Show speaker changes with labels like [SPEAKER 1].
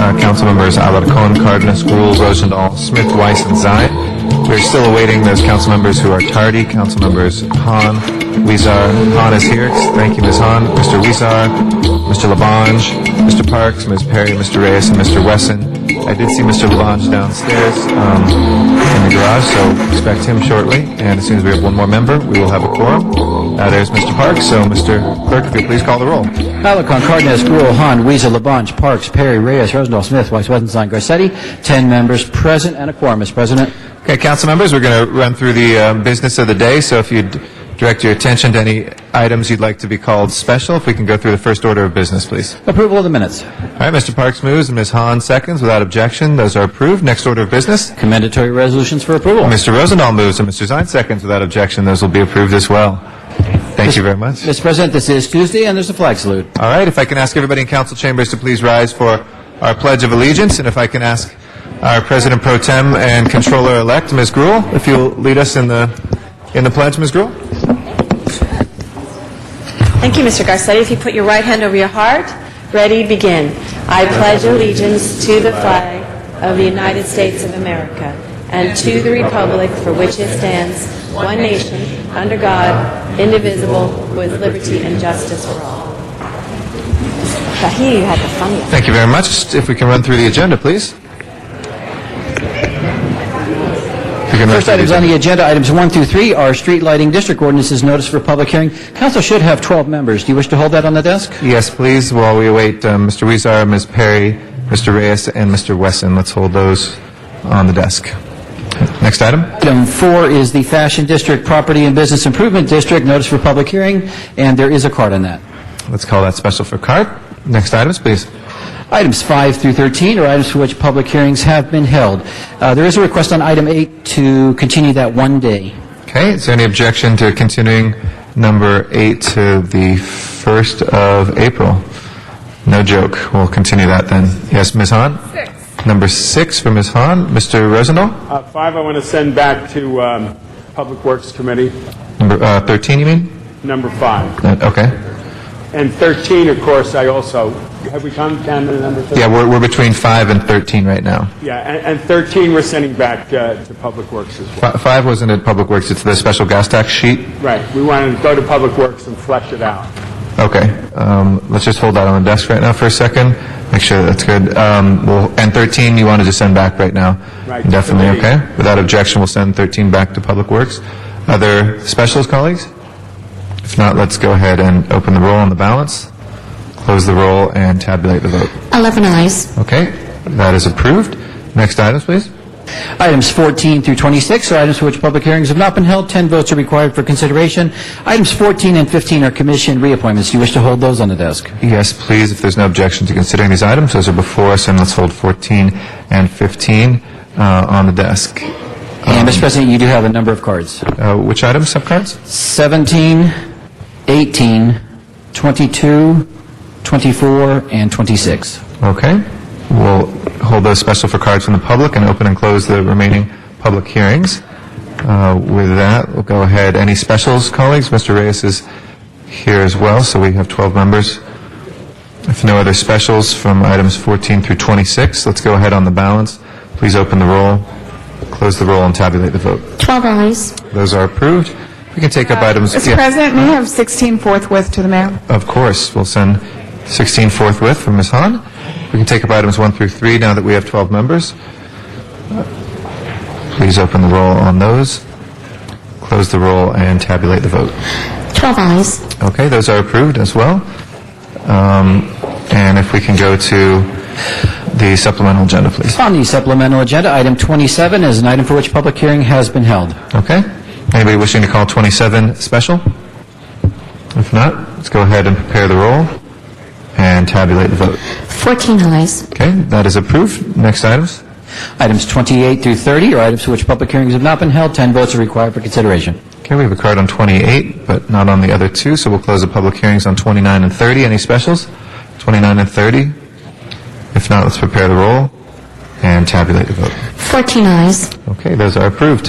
[SPEAKER 1] Uh, Councilmembers Alarcon, Cardenas, Gruel, Rosendahl, Smith, Weiss, and Zine. We're still awaiting those council members who are tardy. Councilmembers Han, Weezar, Han is here. Thank you, Ms. Han. Mr. Weezar, Mr. Labange, Mr. Parks, Ms. Perry, Mr. Reyes, and Mr. Wesson. I did see Mr. Labange downstairs um, in the garage, so expect him shortly. And as soon as we have one more member, we will have a quorum. Uh, there's Mr. Parks, so Mr. Clerk, if you please call the roll.
[SPEAKER 2] Alarcon, Cardenas, Gruel, Han, Weezer, Labange, Parks, Perry, Reyes, Rosendahl, Smith, Weiss, Westenstein, Garcetti, 10 members present and a quorum, Mr. President.
[SPEAKER 1] Okay, council members, we're going to run through the um, business of the day, so if you'd direct your attention to any items you'd like to be called special, if we can go through the first order of business, please.
[SPEAKER 2] Approval of the minutes.
[SPEAKER 1] All right, Mr. Parks moves and Ms. Hahn seconds without objection. Those are approved. Next order of business,
[SPEAKER 2] Commendatory resolutions for approval.
[SPEAKER 1] Mr. Rosendahl moves and Mr. Zine seconds without objection. Those will be approved as well. Thank you very much.
[SPEAKER 2] Mr. President, this is Tuesday, and there's a flag salute.
[SPEAKER 1] All right, if I can ask everybody in council chambers to please rise for our Pledge of Allegiance, and if I can ask our President Pro Tem and Controller-elect, Ms. Gruel, if you'll lead us in the, in the pledge, Ms. Gruel?
[SPEAKER 3] Thank you, Mr. Garcetti. If you put your right hand over your heart, ready, begin. I pledge allegiance to the flag of the United States of America and to the republic for which it stands, one nation, under God, indivisible, with liberty and justice for all. I hear you had the funniest.
[SPEAKER 1] Thank you very much. If we can run through the agenda, please. If we can run
[SPEAKER 2] First
[SPEAKER 1] through the
[SPEAKER 2] items on
[SPEAKER 1] agenda.
[SPEAKER 2] the agenda, items 1 through 3, are street lighting district ordinances notice for public hearing. Council should have 12 members. Do you wish to hold that on the desk?
[SPEAKER 1] Yes, please, while we await um, Mr. Weezer, Ms. Perry, Mr. Reyes, and Mr. Wesson. Let's hold those on the desk. Next item?
[SPEAKER 2] Item 4 is the Fashion District Property and Business Improvement District notice for public hearing, and there is a card on that.
[SPEAKER 1] Let's call that special for card. Next items, please.
[SPEAKER 2] Items 5 through 13 are items for which public hearings have been held. Uh, There is a request on item 8 to continue that one day.
[SPEAKER 1] Okay, is there any objection to continuing number eight to the 1st of April? No joke, we'll continue that then. Yes, Ms. Hahn? Six. Number six for Ms. Hahn. Mr. Rosendahl?
[SPEAKER 4] Uh, Five, I want to send back to um, Public Works Committee,
[SPEAKER 1] Number uh, 13, you mean?
[SPEAKER 4] number five.
[SPEAKER 1] Uh, Okay.
[SPEAKER 4] And 13, of course, I also, have we come down to number 13?
[SPEAKER 1] Yeah, we're, we're between five and 13 right now.
[SPEAKER 4] Yeah, and and 13, we're sending back uh, to Public Works as well.
[SPEAKER 1] Fi- Five wasn't at Public Works, it's the special gas tax sheet?
[SPEAKER 4] Right, we want to go to Public Works and flesh it out.
[SPEAKER 1] Okay, um, let's just hold that on the desk right now for a second, make sure that's good. Um, we'll, and 13, you wanted to send back right now?
[SPEAKER 4] Right.
[SPEAKER 1] Definitely, okay. Without objection, we'll send 13 back to Public Works. Other specials, colleagues? If not, let's go ahead and open the roll on the balance, close the roll, and tabulate the vote.
[SPEAKER 5] 11 eyes.
[SPEAKER 1] Okay, that is approved. Next items, please.
[SPEAKER 2] Items 14 through 26 are items for which public hearings have not been held. 10 votes are required for consideration. Items 14 and 15 are commission reappointments. Do you wish to hold those on the desk?
[SPEAKER 1] Yes, please, if there's no objection to considering these items, those are before us, and let's hold 14 and 15 uh, on the desk.
[SPEAKER 2] And, Mr. President, you do have a number of cards.
[SPEAKER 1] Uh, Which items, subcards?
[SPEAKER 2] 17, 18, 22, 24, and 26.
[SPEAKER 1] Okay. We'll hold those special for cards from the public and open and close the remaining public hearings. Uh, With that, we'll go ahead. Any specials, colleagues? Mr. Reyes is here as well, so we have 12 members. If no other specials from items 14 through 26, let's go ahead on the balance. Please open the roll, close the roll, and tabulate the vote.
[SPEAKER 5] 12 eyes.
[SPEAKER 1] Those are approved. We can take up items...
[SPEAKER 6] Uh, Mr.
[SPEAKER 1] yeah,
[SPEAKER 6] President, may I have 16 forthwith to the mayor?
[SPEAKER 1] Of course, we'll send 16 forthwith from Ms. Hahn. We can take up items 1 through 3 now that we have 12 members. Please open the roll on those, close the roll, and tabulate the vote.
[SPEAKER 5] 12 eyes.
[SPEAKER 1] Okay, those are approved as well. Um, And if we can go to the supplemental agenda, please.
[SPEAKER 2] On the supplemental agenda, item 27 is an item for which public hearing has been held.
[SPEAKER 1] Okay? Anybody wishing to call 27 special? If not, let's go ahead and prepare the roll and tabulate the vote.
[SPEAKER 5] 14 eyes.
[SPEAKER 1] Okay, that is approved. Next items?
[SPEAKER 2] Items 28 through 30 are items for which public hearings have not been held. 10 votes are required for consideration.
[SPEAKER 1] Okay, we have a card on 28, but not on the other two, so we'll close the public hearings on 29 and 30. Any specials? 29 and 30? If not, let's prepare the roll and tabulate the vote.
[SPEAKER 5] 14 eyes.
[SPEAKER 1] Okay, those are approved.